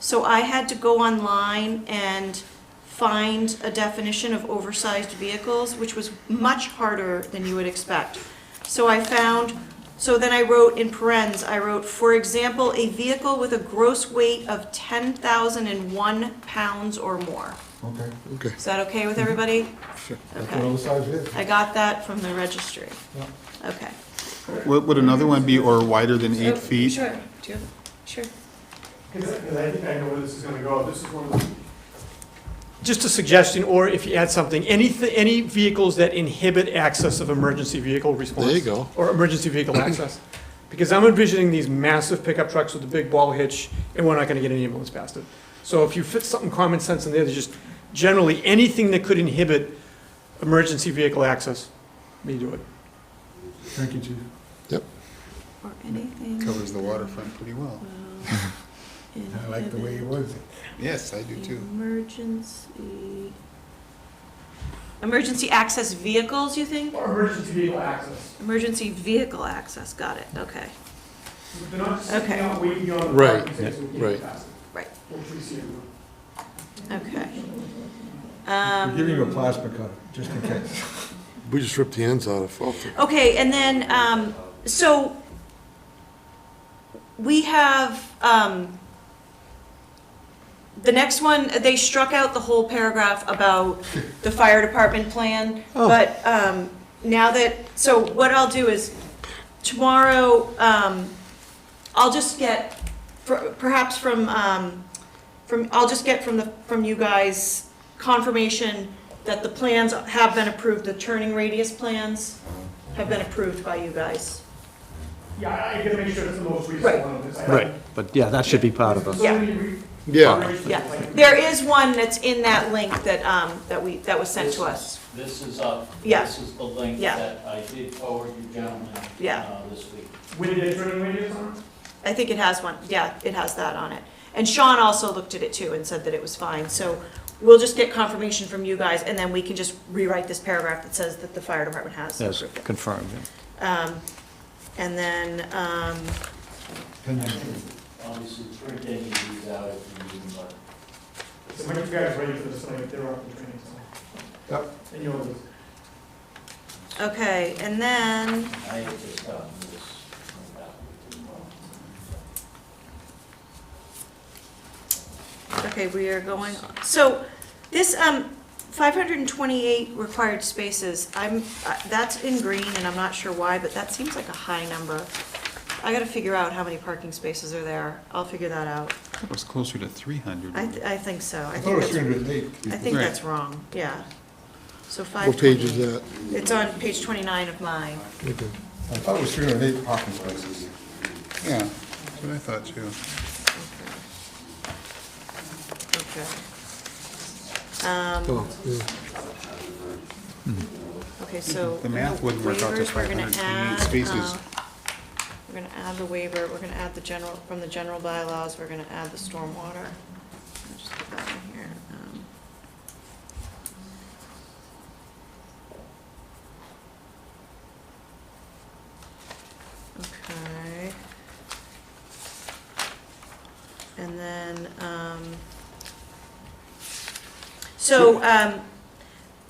So I had to go online and find a definition of oversized vehicles, which was much harder than you would expect. So I found, so then I wrote in parentheses, I wrote, for example, a vehicle with a gross weight of 10,001 pounds or more. Okay, Okay. Is that okay with everybody? Sure. Mm-hmm. that's what Okay. oversized is. I got that from the registry. Yeah. Okay. Would, would another one be or wider than Oh, eight feet? Sure, do you have- sure. Because I think I know where this is gonna go, this is one of the. Just a suggestion, or if you add something, any, any vehicles that inhibit access of emergency vehicle response. There you go. Or emergency vehicle access. Because I'm envisioning these massive pickup trucks with a big ball hitch, and we're not gonna get an ambulance past it. So if you fit something common sense in there, there's just generally anything that could inhibit emergency vehicle access, me do it. Thank you, chief. Or anything. Covers the waterfront pretty well. I like the way he was. Yes, I do too. Emergency. Emergency access vehicles, you think? Or emergency vehicle access. Emergency vehicle access, got it, okay. They're not sitting Okay. out waiting on the Right, right. Right. Okay. Um, We're giving you a plasma cutter, just in case. We just ripped the ends out of, off the. Okay, and then, um, so we have, um, the next one, they struck out the whole paragraph about the fire department plan. But, um, now that, so what I'll do is tomorrow, um, I'll just get, per- perhaps from, um, from, I'll just get from the, from you guys confirmation that the plans have been approved, the turning radius plans have been approved by you guys. Yeah, I gotta make sure it's the most Right. recent one. because I- Right, but yeah, that should be part of There's us. so many re- Yeah, iterations, Yeah, like- there is one that's in that link that, um, that we, that was sent to us. This is up. Yeah. This is the link Yeah. that I did forward you gentlemen. Yeah. uh, This week. With the turning radius on it? I think it has one, yeah, it has that on it. And Sean also looked at it too and said that it was fine, so we'll just get confirmation from you guys, and then we can just rewrite this paragraph that says that the fire department has Yes, approved it. confirmed, yeah. Um, and then, um, Can you- Obviously, print any of these out if you need, but So when you guys ready for this, like, they're up and training, so. Yep. And you'll, okay, and then, I have just gotten this. from that tomorrow. Okay, we are going, so this, um, five hundred and twenty-eight required spaces, I'm, uh, that's in green and I'm not sure why, but that seems like a high number. I gotta figure out how many parking spaces are there. I'i'll figure that out. it was closer to three hundred. I, th- I think so. I I thought it think was three that's, hundred and eight. I think Right. that's wrong, yeah. So five. What page is that? It's on page twenty-nine of mine. Okay. I thought it was three hundred and eight parking places. Yeah, that's what I thought too. Okay. Oh, Um, okay, so. The math wouldn't work out to waivers, we're gonna 528 add, spaces. uh, We're gonna add the waiver, we're gonna add the general, from the general bylaws, we're gonna add the stormwater. I'll Just put that in here. um. Okay. And then, um, so, um,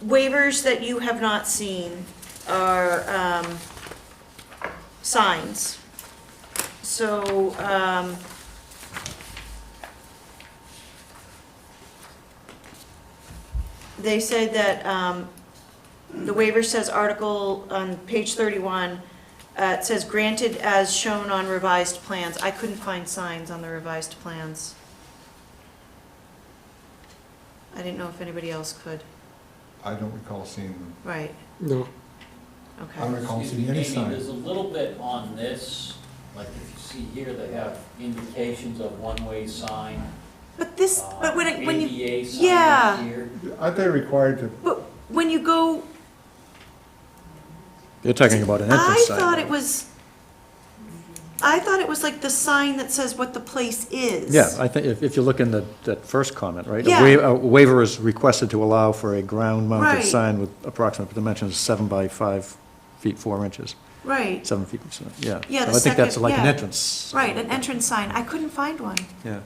waivers that you have not seen are, um, signs. So, um, they said that, um, the waiver says article on page thirty-one, uh, it says granted as shown on revised plans. I couldn't find signs on the revised plans. I didn't know if anybody else could. I don't recall seeing them. Right, No. I don't okay. recall Excuse seeing me, any Amy, sign. there's a little bit on this, like if you see here, they have indications of one-way sign. But this, uh, but when, it- when you, ADA sign yeah. up here. Aren't they required to, but when you go, You're talking about an entrance I sign. thought it was, I thought it was like the sign that says what the place is. Yeah, I think, if, if you look in the, that first comment, right? a Yeah. wa- A waiver is requested to allow for a ground-mounted Right. sign with approximate dimensions of seven by five feet, four inches, Right, seven feet, so, yeah. Yeah, So the I think that's second- like an yeah. entrance. right, an entrance sign. I couldn't find one. Yeah,